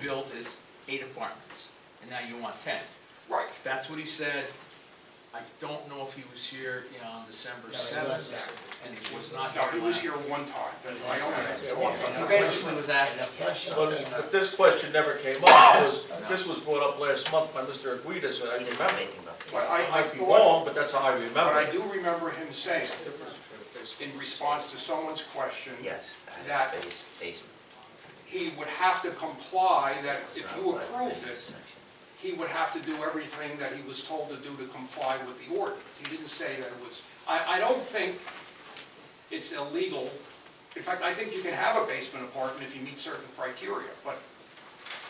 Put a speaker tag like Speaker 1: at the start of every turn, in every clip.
Speaker 1: built is eight apartments, and now you want ten. Right. That's what he said. I don't know if he was here on December seventh, and he was not here
Speaker 2: No,
Speaker 1: last.
Speaker 2: he was here one time, that's why I
Speaker 1: He
Speaker 2: don't.
Speaker 1: Basically was asked,
Speaker 3: But but this question never came up, because this was brought up last month by Mr. Aguirre, I remember.
Speaker 2: But
Speaker 3: I
Speaker 2: I, I
Speaker 3: might be
Speaker 2: thought,
Speaker 3: wrong, but that's how I remember.
Speaker 2: but I
Speaker 3: it.
Speaker 2: do remember him saying, in response to someone's question,
Speaker 4: Yes,
Speaker 2: That-
Speaker 4: that is basement.
Speaker 2: he would have to comply, that if
Speaker 4: It's
Speaker 2: you
Speaker 4: not like
Speaker 2: approved
Speaker 4: this
Speaker 2: it,
Speaker 4: section.
Speaker 2: he would have to do everything that he was told to do to comply with the ordinance. He didn't say that it was, I, I don't think it's illegal. In fact, I think you can have a basement apartment if you meet certain criteria, but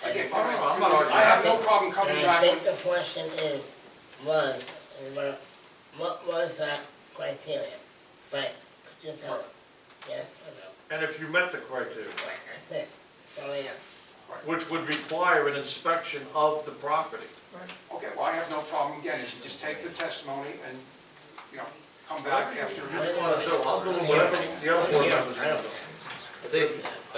Speaker 2: again,
Speaker 5: Oh, no,
Speaker 2: I
Speaker 5: I'm not arguing.
Speaker 2: I have no problem coming
Speaker 5: And I
Speaker 2: back.
Speaker 5: think
Speaker 2: with-
Speaker 5: the question is, was, and what- what was that criteria? Frank, could you tell us? Yes or no?
Speaker 3: And if you met the criteria,
Speaker 5: Right, that's it. That's all I asked.
Speaker 3: which would require an inspection of the property.
Speaker 2: Okay, well, I have no problem, again, if you just take the testimony and, you know, come back after.
Speaker 3: What do you wanna do? I'll do whatever the other board members
Speaker 5: I
Speaker 3: do.
Speaker 5: don't care.
Speaker 6: I think,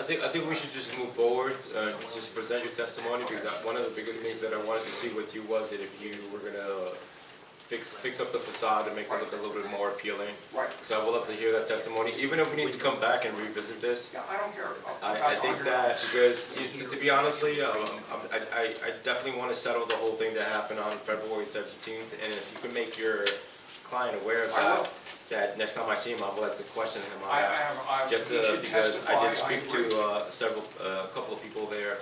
Speaker 6: I think, I think we should just move forward, uh, just present your testimony, because that, one of the biggest things that I wanted to see with you was that if you were gonna fix, fix up the facade and make it look a little bit more appealing.
Speaker 2: Right,
Speaker 6: So I would love to hear that testimony, even if we need to come back and revisit this.
Speaker 2: yeah, I don't care. I'll- I'll
Speaker 6: I, I
Speaker 2: pass
Speaker 6: think
Speaker 2: on your-
Speaker 6: that, because, you- to- to be honestly, um, I'm- I, I, I definitely wanna settle the whole thing that happened on February seventeenth, and if you can make your client aware of
Speaker 2: I
Speaker 6: that,
Speaker 2: will.
Speaker 6: that next time I see him, I'll have to question him on
Speaker 2: I, I
Speaker 6: that.
Speaker 2: have, I, he
Speaker 6: Just uh,
Speaker 2: should
Speaker 6: because
Speaker 2: testify.
Speaker 6: I did speak
Speaker 2: agree.
Speaker 6: to uh, several, uh, a couple of people there,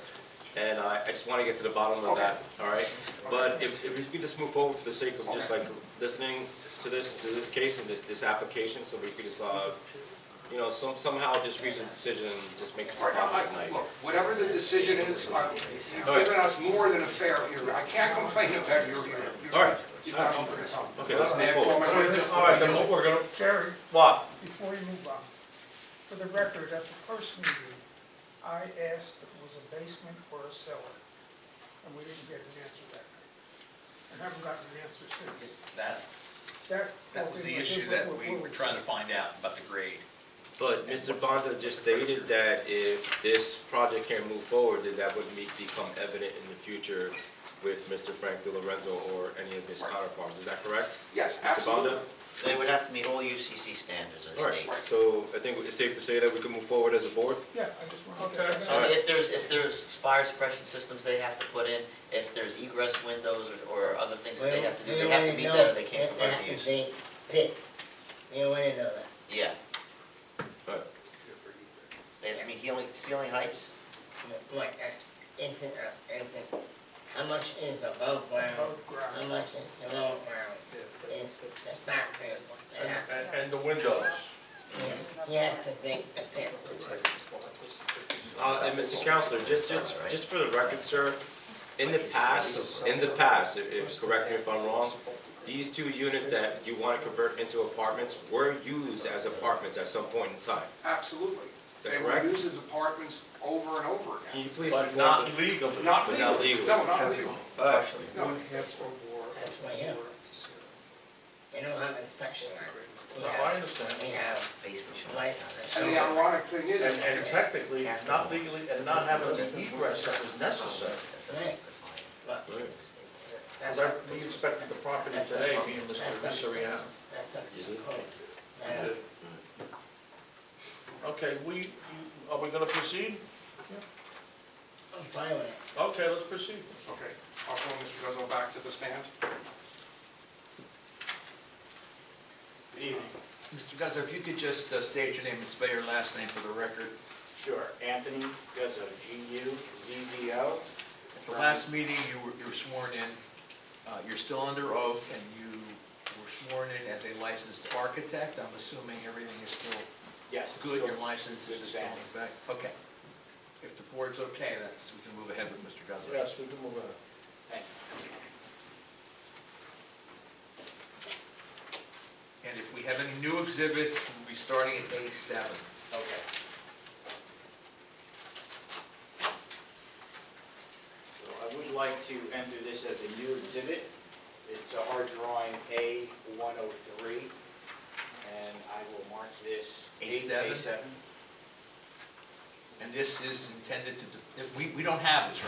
Speaker 6: and I I just want to get to the bottom of
Speaker 2: Okay.
Speaker 6: that, all right? But if if we could just move forward for the sake of just like listening to this, to this case and this, this application, so we could just, uh, you know, some somehow just reach a decision, just make it
Speaker 2: All right, I-
Speaker 6: positive
Speaker 2: I-
Speaker 6: tonight.
Speaker 2: Look, whatever the decision is, I- you've
Speaker 6: All right.
Speaker 2: given us more than a fair hearing. I can't complain about your hearing. You've-
Speaker 6: All right.
Speaker 2: You've not opened it up.
Speaker 6: Okay, let's move
Speaker 2: And for
Speaker 6: forward.
Speaker 2: my witness-
Speaker 3: All right, then we're gonna,
Speaker 7: Jerry,
Speaker 3: what?
Speaker 7: before you move on, for the record, at the first meeting, I asked if it was a basement or a cellar, and we didn't get an answer that night. And haven't gotten an answer since.
Speaker 1: that,
Speaker 7: That.
Speaker 1: that was the issue that we were trying to find out about the grade.
Speaker 6: But Mr. Bonta just stated that if this project can move forward, that that would meet- become evident in the future with Mr. Frank Di Lorenzo or any of his counterparts, is that correct?
Speaker 2: Yes,
Speaker 6: Mr.
Speaker 2: absolutely.
Speaker 6: Bonta?
Speaker 4: They would have to meet all UCC standards in the
Speaker 6: All
Speaker 4: state.
Speaker 6: right, so I think it's safe to say that we can move forward as a board?
Speaker 7: Yeah, I just wanted to.
Speaker 3: Okay.
Speaker 4: So if there's, if there's fire suppression systems they have to put in, if there's egress windows or, or other things that they have to do, they have to meet that or they can't
Speaker 5: We already know
Speaker 4: provide
Speaker 5: that they
Speaker 4: the
Speaker 5: have to
Speaker 4: use.
Speaker 5: be pits. We already know that.
Speaker 4: Yeah,
Speaker 6: All right.
Speaker 4: they have to meet healing, ceiling heights.
Speaker 5: Like, uh, is it, uh, is it, how much is above ground?
Speaker 7: Above
Speaker 5: How
Speaker 7: ground.
Speaker 5: much is below ground? Is, that's not fair. They have-
Speaker 3: And, and the windows.
Speaker 5: he- He has to think the pits.
Speaker 6: Uh, and Mr. Counselor, just, just, just for the record, sir, in the past, in the past, if, if, correct me if I'm wrong, these two units that you want to convert into apartments were used as apartments at some point in time.
Speaker 2: Absolutely.
Speaker 6: that
Speaker 2: They were
Speaker 6: correct?
Speaker 2: used as apartments over and over again.
Speaker 6: Can you please
Speaker 3: But
Speaker 6: inform
Speaker 3: not
Speaker 6: me?
Speaker 3: legally.
Speaker 2: Not
Speaker 6: But not
Speaker 2: legally.
Speaker 6: legally.
Speaker 2: No, not legally.
Speaker 6: Uh,
Speaker 2: No.
Speaker 5: That's why you, you don't have inspection on it. We
Speaker 3: No, I
Speaker 5: have,
Speaker 3: understand.
Speaker 5: we have
Speaker 4: Basement should not.
Speaker 5: lights
Speaker 2: And
Speaker 5: on the
Speaker 2: the
Speaker 5: shoulder.
Speaker 2: ironic thing is.
Speaker 3: And, and technically, not legally, and not having the egress that was necessary.
Speaker 5: Right. Look,
Speaker 6: Right.
Speaker 5: that's
Speaker 3: Because
Speaker 5: a,
Speaker 3: I, we inspected the property today, me and Mr. Vissariano.
Speaker 5: that's a code. That is-
Speaker 3: Okay, we, you- are we gonna proceed?
Speaker 5: I'm fine with it.
Speaker 3: Okay, let's proceed.
Speaker 2: Okay, I'll go, Mr. Rizzo, back to the stand.
Speaker 3: Good evening.
Speaker 1: Mr. Guzzo, if you could just uh, state your name and spell your last name for the record.
Speaker 8: Sure, Anthony Guzzo, G-U-Z-Z-O.
Speaker 1: At the last meeting, you were, you were sworn in, uh, you're still under oath, and you were sworn in as a licensed architect. I'm assuming everything is still
Speaker 8: Yes.
Speaker 1: good,
Speaker 8: sure.
Speaker 1: your license is
Speaker 8: Good
Speaker 1: still in
Speaker 8: standing.
Speaker 1: effect? Okay. If the board's okay, that's, we can move ahead with Mr. Guzzo.
Speaker 3: Yes, we can move on.
Speaker 8: Thank you.
Speaker 1: And if we have any new exhibits, we'll be starting at day seven.
Speaker 8: Okay. So I would like to enter this as a new exhibit. It's a hard drawing A one oh three, and I will mark this
Speaker 1: A seven?
Speaker 8: A seven.
Speaker 1: And this is intended to, de- we, we don't have this, right?